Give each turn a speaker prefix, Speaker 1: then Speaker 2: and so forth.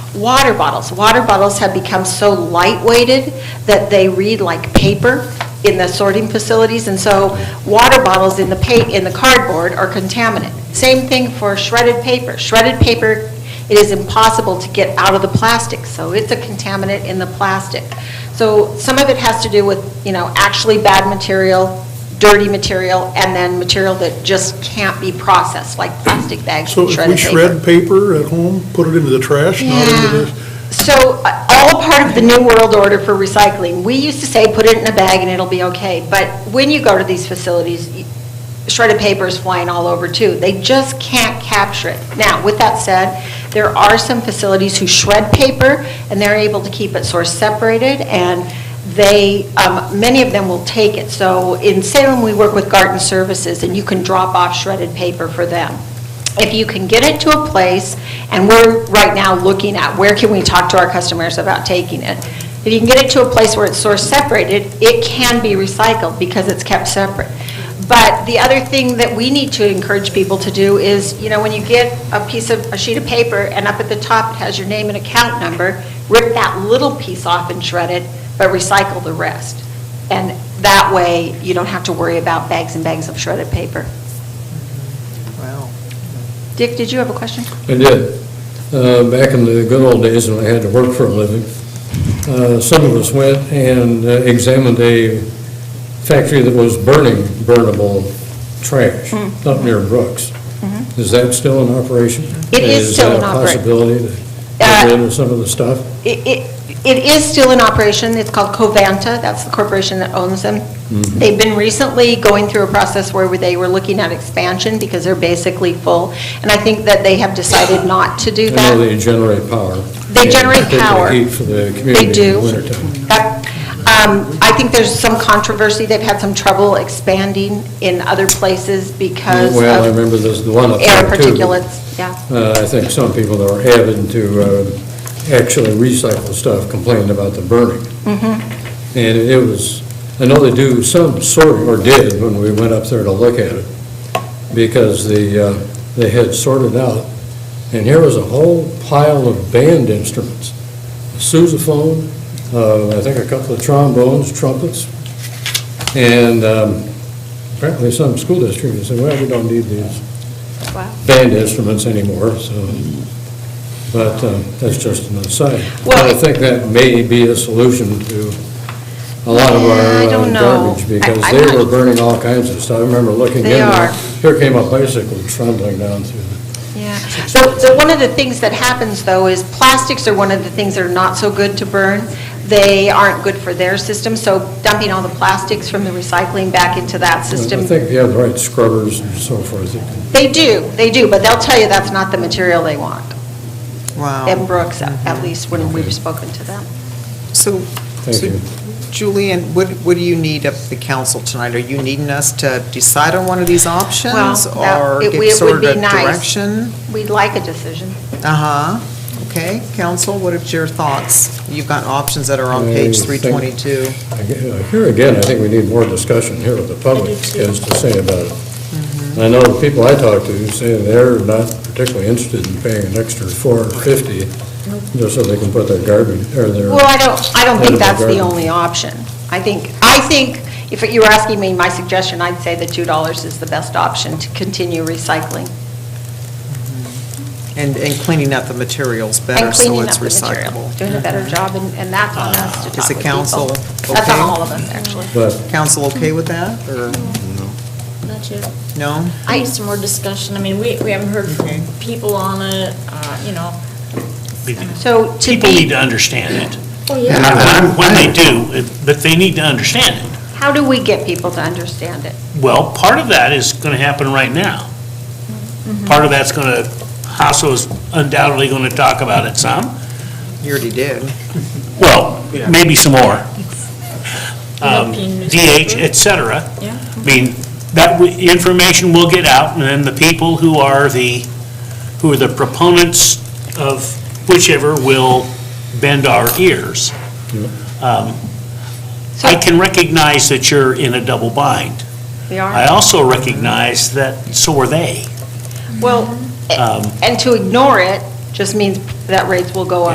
Speaker 1: water bottles. Water bottles have become so lightweighted that they read like paper in the sorting facilities, and so water bottles in the pa, in the cardboard are contaminant. Same thing for shredded paper. Shredded paper, it is impossible to get out of the plastic, so it's a contaminant in the plastic. So some of it has to do with, you know, actually bad material, dirty material, and then material that just can't be processed, like plastic bags
Speaker 2: So
Speaker 1: and
Speaker 2: if we
Speaker 1: shredded paper.
Speaker 2: shred paper at home, put it into the trash, not into
Speaker 1: Yeah.
Speaker 2: this?
Speaker 1: So, uh, all part of the new world order for recycling. We used to say, put it in a bag and it'll be okay, but when you go to these facilities, y- shredded paper is flying all over too. They just can't capture it. Now, with that said, there are some facilities who shred paper, and they're able to keep it source separated, and they, um, many of them will take it. So, in Salem, we work with Garden Services, and you can drop off shredded paper for them if you can get it to a place, and we're right now looking at, where can we talk to our customers about taking it? If you can get it to a place where it's source separated, it can be recycled because it's kept separate. But the other thing that we need to encourage people to do is, you know, when you get a piece of, a sheet of paper, and up at the top it has your name and account number, rip that little piece off and shred it, but recycle the rest. And that way, you don't have to worry about bags and bags of shredded paper.
Speaker 3: Wow.
Speaker 1: Dick, did you have a question?
Speaker 4: I did. Uh, Back in the good old days when I had to work for a living, uh, some of us went and uh, examined a factory that was burning burnable trash
Speaker 1: Hmm.
Speaker 4: up near Brooks. Is that still in operation?
Speaker 1: Mm-hmm. It is still in
Speaker 4: that a
Speaker 1: operation.
Speaker 4: possibility to
Speaker 1: Uh,
Speaker 4: get rid of some of the stuff?
Speaker 1: It- It it is still in operation. It's called Covanta. That's the corporation that owns them.
Speaker 4: Mm-hmm.
Speaker 1: They've been recently going through a process where they were looking at expansion because they're basically full. And I think that they have decided not to do
Speaker 4: I know
Speaker 1: that.
Speaker 4: they generate power.
Speaker 1: They
Speaker 4: and
Speaker 1: generate
Speaker 4: particularly
Speaker 1: power.
Speaker 4: heat for the community
Speaker 1: They
Speaker 4: in
Speaker 1: do.
Speaker 4: the wintertime.
Speaker 1: That- um, I think there's some controversy. They've had some trouble expanding in other places because of...
Speaker 4: Well, I remember there's the one up
Speaker 1: Air
Speaker 4: there, too.
Speaker 1: particulates, yeah.
Speaker 4: Uh, I think some people that were avid to uh, actually recycle stuff complained about the burning. And it was, I know they do some sorting, or did, when we went up there to look at it, because the, uh, they had sorted out, and here was a whole pile of band instruments, sousaphone, uh, I think a couple of trombones, trumpets, and um, apparently some school district said, well, we don't need these
Speaker 1: Wow.
Speaker 4: band instruments anymore, so, but um, that's just an aside. But I
Speaker 1: Well-
Speaker 4: think that may be a solution to a lot of
Speaker 1: Yeah, I
Speaker 4: our uh,
Speaker 1: don't know.
Speaker 4: garbage,
Speaker 1: I-
Speaker 4: because
Speaker 1: I'm
Speaker 4: they
Speaker 1: not-
Speaker 4: were burning all kinds of stuff. I remember looking in.
Speaker 1: They
Speaker 4: and
Speaker 1: are.
Speaker 4: Here came a bicycle trundling down through the
Speaker 1: Yeah, so, so one of the things that happens, though, is plastics are one of the things that are not so good to burn. They aren't good for their system, so dumping all the plastics from the recycling back into that
Speaker 4: I
Speaker 1: system.
Speaker 4: think if you have the right scrubbers and so forth, you can-
Speaker 1: They do, they do, but they'll tell you that's not the material they want. And
Speaker 3: Wow.
Speaker 1: Brooks, at at least when we've spoken to them.
Speaker 3: So,
Speaker 4: thank
Speaker 3: so
Speaker 4: you.
Speaker 3: Julian, what, what do you need of the council tonight? Are you needing us to decide on one of these options?
Speaker 1: Well, that-
Speaker 3: Or
Speaker 1: it- it
Speaker 3: give
Speaker 1: would
Speaker 3: sort
Speaker 1: be
Speaker 3: of
Speaker 1: nice.
Speaker 3: direction?
Speaker 1: We'd like a decision.
Speaker 3: Uh-huh. Okay, council, what are your thoughts? You've got options that are on
Speaker 4: I
Speaker 3: page
Speaker 4: think-
Speaker 3: 322.
Speaker 4: I gue- uh, Here again, I think we need more discussion here with the public as to say about it.
Speaker 1: Mm-hmm.
Speaker 4: I know the people I talk to say they're not particularly interested in paying an extra four or fifty just so they can put their garbage, or their.
Speaker 1: Well, I don't, I don't think
Speaker 4: Edible
Speaker 1: that's the
Speaker 4: garden.
Speaker 1: only option. I think, I think, if you were asking me my suggestion, I'd say the $2 is the best option to continue recycling.
Speaker 3: And, and cleaning up the materials better
Speaker 1: And
Speaker 3: so
Speaker 1: cleaning
Speaker 3: it's
Speaker 1: up the material,
Speaker 3: recyclable. Ah,
Speaker 1: Doing a better job, and, and that's on us to
Speaker 3: Is
Speaker 1: talk
Speaker 3: the
Speaker 1: with
Speaker 3: council
Speaker 1: people. That's on
Speaker 3: okay?
Speaker 1: all of us, actually.
Speaker 4: But
Speaker 3: Council okay with that, or
Speaker 5: Not yet.
Speaker 3: no?
Speaker 5: I need some more discussion. I mean, we, we haven't heard from
Speaker 3: Okay.
Speaker 5: people on it, uh, you know.
Speaker 1: So to
Speaker 6: People need
Speaker 1: be,
Speaker 6: to understand it.
Speaker 5: Oh,
Speaker 6: When- When they do, it- but they need to understand it.
Speaker 1: how do we get people to understand it?
Speaker 6: Well, part of that is going to happen right now. Part of that's going to, Hasso is undoubtedly going to talk about it some.
Speaker 3: You already did.
Speaker 6: Well, maybe some more. Um,
Speaker 5: European
Speaker 6: DH,
Speaker 5: newspaper.
Speaker 6: et cetera.
Speaker 5: Yeah.
Speaker 6: I mean, that, w- information will get out, and then the people who are the, who are the proponents of whichever will bend our ears. Um, I can recognize that you're in a double bind.
Speaker 1: We
Speaker 6: I
Speaker 1: are,
Speaker 6: also recognize that, so are they.
Speaker 1: well,
Speaker 6: Um,
Speaker 1: and to ignore it just means that rates will go up.